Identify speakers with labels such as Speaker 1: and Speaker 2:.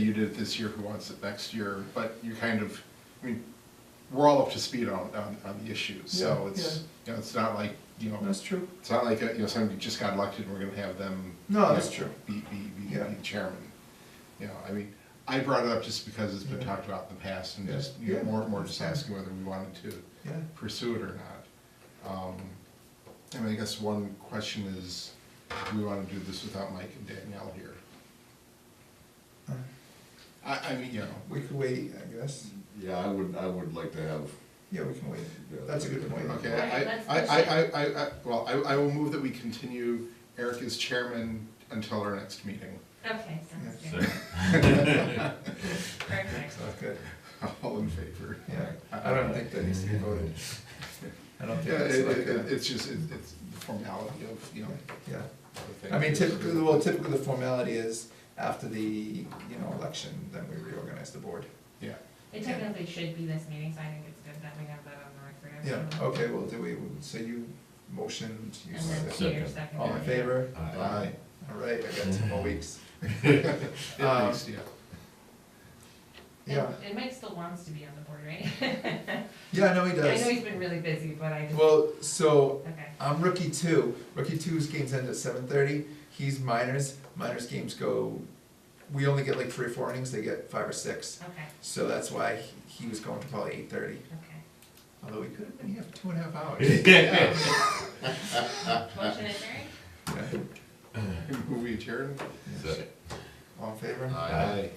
Speaker 1: you did it this year, who wants it next year, but you kind of, I mean, we're all up to speed on, on, on the issues, so
Speaker 2: Yeah,
Speaker 1: it's, you know, it's not like, you know,
Speaker 2: That's true.
Speaker 1: it's not like, uh, you know, somebody just got elected and we're gonna have them.
Speaker 2: No,
Speaker 1: you know,
Speaker 2: that's true.
Speaker 1: Be, be, be
Speaker 2: Yeah.
Speaker 1: be chairman. You know, I mean, I brought it up just because it's been
Speaker 2: Yeah.
Speaker 1: talked about in the past and
Speaker 2: Yeah.
Speaker 1: just, you know,
Speaker 2: Yeah.
Speaker 1: more, and more just asking whether we wanted to
Speaker 2: Yeah.
Speaker 1: pursue it or not. Um, I mean, I guess one question is, do we wanna do this without Mike and Danielle here?
Speaker 2: Uh,
Speaker 1: I, I mean, you know,
Speaker 2: We could wait, I guess.
Speaker 3: Yeah, I would, I would like to have,
Speaker 2: Yeah, we can wait.
Speaker 3: Yeah,
Speaker 2: That's a good point.
Speaker 1: Okay,
Speaker 4: Right,
Speaker 1: I-
Speaker 4: that's
Speaker 1: I,
Speaker 4: the
Speaker 1: I, I, I, I, well, I, I will move that we continue Eric as chairman until our next meeting.
Speaker 4: Okay, sounds
Speaker 2: Yeah.
Speaker 4: good. Perfect.
Speaker 2: That's good.
Speaker 1: All in favor?
Speaker 2: Yeah. I don't think that needs to be voted. I don't
Speaker 1: Yeah,
Speaker 2: think that's
Speaker 1: it,
Speaker 2: like
Speaker 1: it, it-
Speaker 2: a,
Speaker 1: it's just, it- it's the formality of, you know.
Speaker 2: yeah.
Speaker 1: the thing.
Speaker 2: I mean, typically, well, typically the formality is after the, you know, election, then we reorganize the board.
Speaker 1: Yeah,
Speaker 4: It technically should be this meeting, so I think it's good that we have that on the record.
Speaker 2: Yeah, okay, well, do we, so you motioned, you
Speaker 4: Mm-hmm. And then
Speaker 2: seconded.
Speaker 4: Peter seconded.
Speaker 2: All in favor?
Speaker 3: Aye.
Speaker 2: All right, I got two more weeks. Um,
Speaker 1: at least, yeah.
Speaker 4: And-
Speaker 2: Yeah,
Speaker 4: And Mike still wants to be on the board, right?
Speaker 2: yeah, no, he
Speaker 4: I know
Speaker 2: does.
Speaker 4: he's been really busy, but I just,
Speaker 2: Well, so
Speaker 4: okay.
Speaker 2: I'm Um, rookie two. Rookie two's games end at seven thirty. He's minors. Minors games go. We only get like three or four innings. They get five or six.
Speaker 4: Okay,
Speaker 2: So that's why he, he was going to probably eight thirty.
Speaker 4: okay.
Speaker 2: Although we could have been here for two and a half hours.
Speaker 4: Motion adjourned?
Speaker 2: Yeah.
Speaker 1: Who we adjourn?
Speaker 3: Second.
Speaker 2: All in favor?
Speaker 3: Aye.